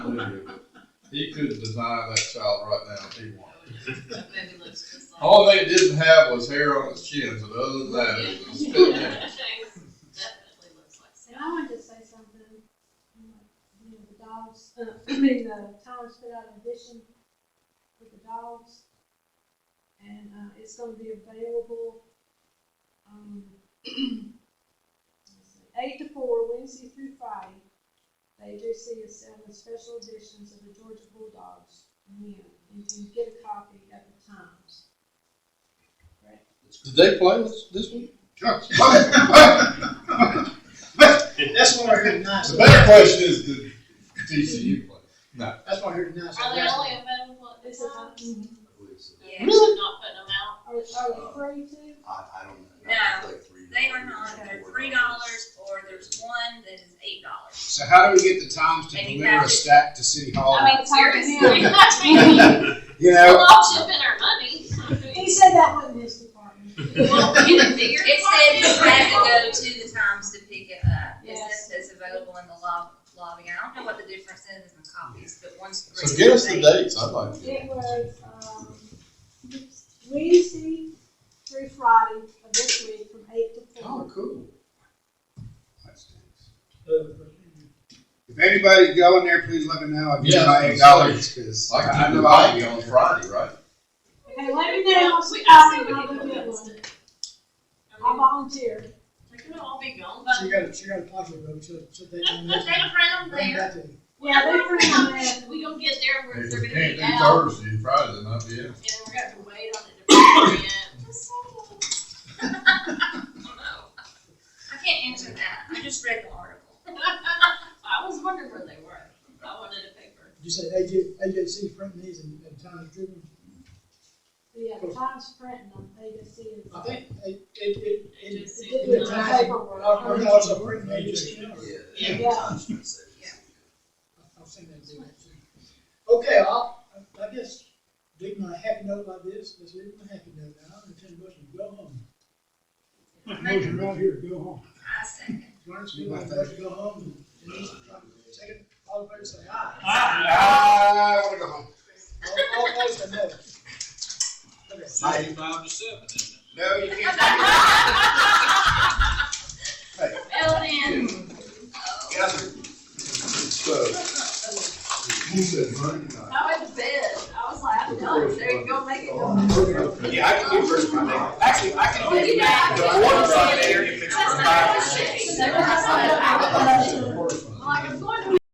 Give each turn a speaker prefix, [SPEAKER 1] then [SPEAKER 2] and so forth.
[SPEAKER 1] could, he could design that child right now if he wanted.
[SPEAKER 2] Maybe looks just like.
[SPEAKER 1] All they didn't have was hair on his chin, so other than that, it was a spit man.
[SPEAKER 2] Definitely looks like
[SPEAKER 3] And I wanted to say something, um, you know, the dogs, uh, I mean, the Thomas put out an edition with the dogs. And, uh, it's gonna be available, um, let's see, eight to four, Wednesday through Friday. They do see us selling special editions of the Georgia Bulldogs, you know, you can get a copy at the Times.
[SPEAKER 1] Did they play this, this week?
[SPEAKER 4] That's what I heard tonight.
[SPEAKER 1] The better question is, did TCU play?
[SPEAKER 4] That's what I heard tonight. so
[SPEAKER 2] Are they
[SPEAKER 4] that's-
[SPEAKER 2] only available at this
[SPEAKER 3] It's a
[SPEAKER 2] time?
[SPEAKER 3] Times.
[SPEAKER 5] Yeah.
[SPEAKER 2] Really? Not putting them out?
[SPEAKER 3] Are, are you free to?
[SPEAKER 6] I, I don't know.
[SPEAKER 5] No,
[SPEAKER 6] Like three
[SPEAKER 5] They are
[SPEAKER 6] dollars,
[SPEAKER 5] not, they're
[SPEAKER 6] four
[SPEAKER 5] three dollars, or there's one that is eight dollars.
[SPEAKER 7] So how do we get the times to
[SPEAKER 5] And you
[SPEAKER 7] deliver
[SPEAKER 5] have-
[SPEAKER 7] a stack to City Hall?
[SPEAKER 2] I mean,
[SPEAKER 3] it's hard to
[SPEAKER 2] seriously.
[SPEAKER 3] know.
[SPEAKER 2] I mean,
[SPEAKER 7] You
[SPEAKER 2] We'll
[SPEAKER 7] know,
[SPEAKER 2] all chip in our money.
[SPEAKER 3] He said that wasn't his department.
[SPEAKER 2] Well, you didn't think your
[SPEAKER 5] It said you
[SPEAKER 2] department-
[SPEAKER 5] had to go to the Times to pick it up. It
[SPEAKER 3] Yes.
[SPEAKER 5] says it's available in the lob- lobby. I don't know what the difference is in copies, but one's.
[SPEAKER 1] So get us the dates, I'd like to.
[SPEAKER 3] It was, um, Wednesday through Friday of this week from eight to four.
[SPEAKER 7] oh, cool. That stinks.
[SPEAKER 4] Uh,
[SPEAKER 7] If anybody go in there, please let me know. I'll give you
[SPEAKER 1] Yeah,
[SPEAKER 7] my eight dollars because
[SPEAKER 1] Like,
[SPEAKER 7] I, I
[SPEAKER 1] I
[SPEAKER 7] know I'll be
[SPEAKER 1] on
[SPEAKER 7] on Friday.
[SPEAKER 1] Friday, right?
[SPEAKER 3] Okay, let me know,
[SPEAKER 2] We-
[SPEAKER 3] we,
[SPEAKER 2] I say
[SPEAKER 3] I
[SPEAKER 2] we
[SPEAKER 3] will
[SPEAKER 2] can
[SPEAKER 3] go
[SPEAKER 2] go
[SPEAKER 3] get
[SPEAKER 2] against
[SPEAKER 3] one.
[SPEAKER 2] it.
[SPEAKER 3] I volunteer.
[SPEAKER 2] They could all be gone, but
[SPEAKER 4] She got a, she got a pocket road, so, so they
[SPEAKER 2] they
[SPEAKER 4] can mention.
[SPEAKER 2] around
[SPEAKER 4] Bring
[SPEAKER 2] there.
[SPEAKER 4] back to-
[SPEAKER 3] Yeah, they're pretty on that.
[SPEAKER 2] We gonna get there where they're gonna
[SPEAKER 1] Can't
[SPEAKER 2] be
[SPEAKER 1] do
[SPEAKER 2] out,
[SPEAKER 1] Thursday, and Friday, then I'll be out.
[SPEAKER 2] and we're gonna have to wait on it to bring it in. Just saying.
[SPEAKER 5] I can't answer that. I just read the article.
[SPEAKER 2] I was wondering where they were. I wanted a paper.
[SPEAKER 4] You said AJ, AJC print these and, and Times Tribune.
[SPEAKER 3] Yeah, the Times printing them, they just see it.
[SPEAKER 4] I think it, it, it, it,
[SPEAKER 2] AJC.
[SPEAKER 4] it did it tonight.
[SPEAKER 3] Paperwork.
[SPEAKER 4] Our, our dogs are printing AJC. now.
[SPEAKER 6] dollars.
[SPEAKER 3] Yeah.
[SPEAKER 6] Yeah.
[SPEAKER 3] Yeah.
[SPEAKER 6] Times New City.
[SPEAKER 5] Yeah.
[SPEAKER 4] I've seen that do that too. Okay, I'll, I I guess, dig my happy note like this, let's leave my happy note now, and ten bucks and go home. Motion right here, go home.
[SPEAKER 5] I second.
[SPEAKER 4] Lawrence, we want to go home, and Denise, second, all in favor, say aye.
[SPEAKER 1] Ah,
[SPEAKER 7] I want to go home.
[SPEAKER 4] All- All opposed, say no. Okay.
[SPEAKER 8] Ninety-five to seven, isn't it?
[SPEAKER 7] No, you can't.
[SPEAKER 2] Filled in.
[SPEAKER 6] So, you said Monday night.
[SPEAKER 2] I went to bed. I was like, I'm done. There you go, make it. done.
[SPEAKER 7] Yeah, I can do first Monday. Actually, I can
[SPEAKER 2] do- Yeah.
[SPEAKER 7] The water's on there if it's
[SPEAKER 2] That's not what I said.
[SPEAKER 3] I